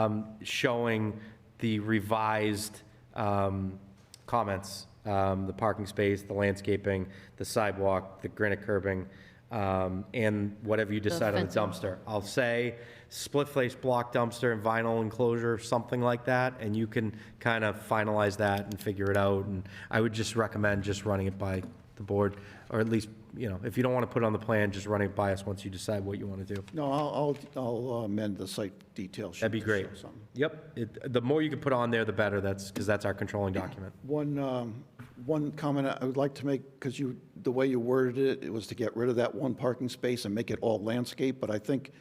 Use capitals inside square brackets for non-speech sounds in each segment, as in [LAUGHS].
um, showing the revised um, comments, um, the parking space, the landscaping, the sidewalk, the granite curbing, um, and whatever you decide on the fencing. dumpster. I'll say split face block dumpster and vinyl enclosure, something like that, and you can kind of finalize that and figure it out. And I would just recommend just running it by the board, or at least, you know, if you don't want to put it on the plan, just running it by us once you decide what you want to do. No, I'll, I'll I'll amend the site detail sheet. That'd be to great. show something. Yep, It- the more you can put on there, the better, that's, because that's our controlling document. One, um, one comment I would like to make, because you, the way you worded it, it was to get rid of that one parking space and make it all landscape, but I think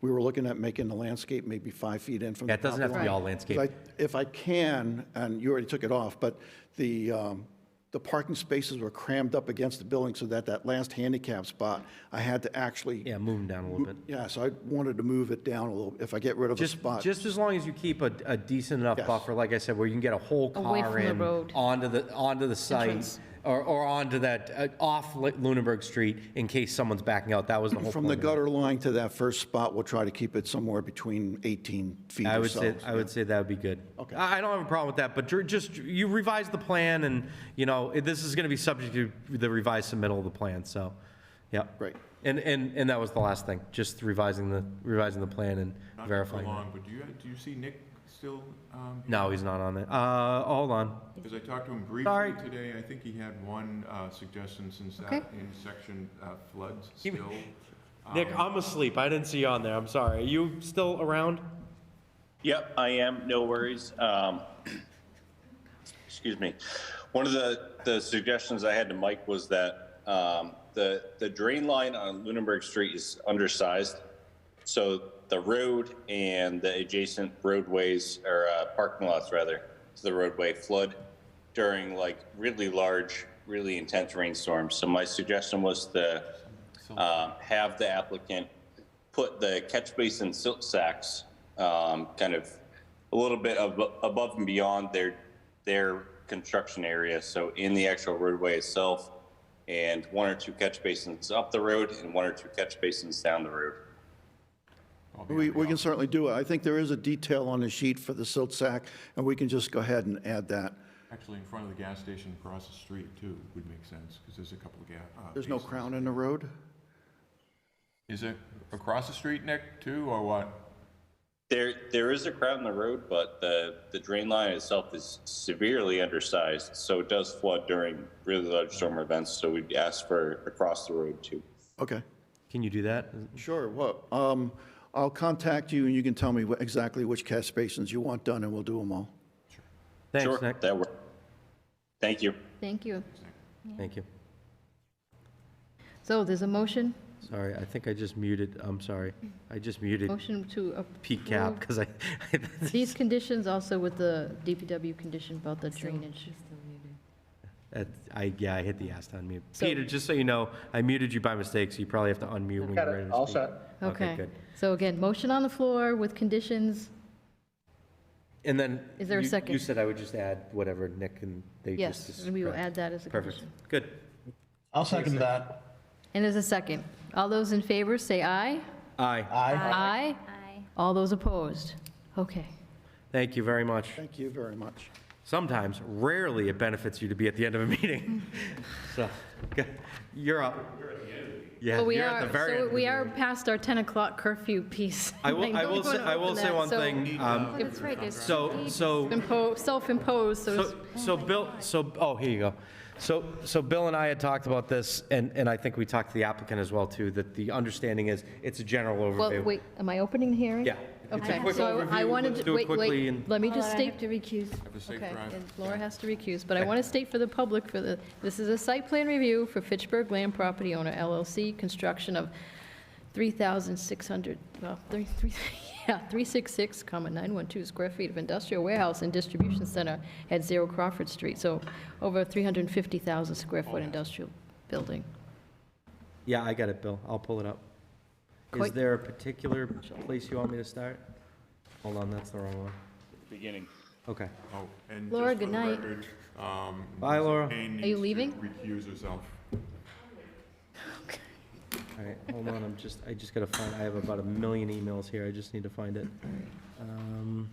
we were looking at making the landscape maybe five feet in from the Yeah, it doesn't have to be all landscape. If I- If I can, and you already took it off, but the, um, the parking spaces were crammed up against the building so that that last handicap spot, I had to actually, Yeah, move them down a little bit. yeah, so I wanted to move it down a little, if I get rid of a Just, spot. just as long as you keep a, a decent enough Yes. buffer, like I said, where you can get a whole Away car from the in road. onto the, onto the site Entrance. or, or onto that, uh, off Lu- Lunenburg Street in case someone's backing out. That was the whole point. From the of it. gutter line to that first spot, we'll try to keep it somewhere between 18 feet I or would so. say, I would say that would be good. Okay. I I don't have a problem with that, but dr- just, you revise the plan and, you know, it- this is going to be subject to the revised submittal of the plan, so, yeah. Great. And, and, and that was the last thing, just revising the, revising the plan and Not to verifying. it. prolong, but do you, do you see Nick still? um, No, he's not on it. Uh, hold on. Because I talked to him briefly Sorry. today, I think he had one uh, suggestion since that Okay. in section uh, floods still. Nick, I'm asleep. I didn't see you on there. I'm sorry. Are you still around? Yep, I am, no worries. Um, Excuse me. One of the, the suggestions I had to Mike was that um, the, the drain line on Lunenburg Street is undersized. So the road and the adjacent roadways, or uh, parking lots rather, to the roadway flood during like really large, really intense rainstorms. So my suggestion was to um, have the applicant put the catch basin silt sacks um, kind of a little bit ab- above and beyond their their construction area, so in the actual roadway itself, and one or two catch basins up the road and one or two catch basins down the road. We, we can certainly do it. I think there is a detail on the sheet for the silt sack, and we can just go ahead and add that. Actually, in front of the gas station across the street too would make sense, because there's a couple of gas. There's no crown in the road? Is it across the street, Nick, too, or what? There there is a crowd in the road, but the the drain line itself is severely undersized, so it does flood during really large storm events. So we'd ask for across the road too. Okay. Can you do that? Sure, well, um, I'll contact you, and you can tell me wh- exactly which catch basins you want done, and we'll do them all. Thanks, sure, Nick. that works. Thank you. Thank you. Thank you. So there's a motion, Sorry, I think I just muted. I'm sorry. I just muted motion to approve. Pete Cap because I, [LAUGHS] These conditions also with the DPW condition about the drainage. that- I, yeah, I hit the ass on mute. So- Peter, just so you know, I muted you by mistake, so you probably have to unmute when you're ready to speak. All set. Okay, Okay, good. so again, motion on the floor with conditions, And then. Is there a you- second? You said I would just add whatever Nick and they just. yes, and we will add that as a Perfect. condition. Good. I'll second that. And there's a second. All those in favor, say aye. Aye. Aye. Aye. All those opposed? Okay. Thank you very much. Thank you very much. Sometimes, rarely, it benefits you to be at the end of a [LAUGHS] meeting. So, g- you're up. Yeah, Well, we you're at are, the very end so of we the are meeting. past our 10 o'clock curfew piece. I [LAUGHS] will, I know we will say, wanna I will open say that, one so thing. um, That's right, there's So, so. impo- Self-imposed, so it's So, so Bill, so, oh, here you go. So, so Bill and I had talked about this, and, and I think we talked to the applicant as well, too, that the understanding is it's a general Well, overview. wait, am I opening the hearing? Yeah. It's a Okay, quick so I overview. wanted, Let's to- do it wait, quickly wait, and- let me Hold just on, I state. have to recuse. Have a safe Okay, drive. and Laura has to recuse, but I want to state for the public, for the, this is a site plan review for Fitchburg Land Property Owner LLC, construction of 3,600, well, three- three- [LAUGHS] yeah, 366, comma, 912 square feet of industrial warehouse and distribution center at Zero Crawford Street, so over 350,000 square foot industrial building. Yeah, I got it, Bill. I'll pull it up. Is Quick. there a particular place you want me to start? Hold on, that's the wrong one. Beginning. Okay. Oh, and Laura, just for good the night. record, um, Bye, Ms. Laura. Payne Are you needs to leaving? Recuse herself. All right, hold on, I'm just, I just gotta find, I have about a million emails here. I just need to find it. Um,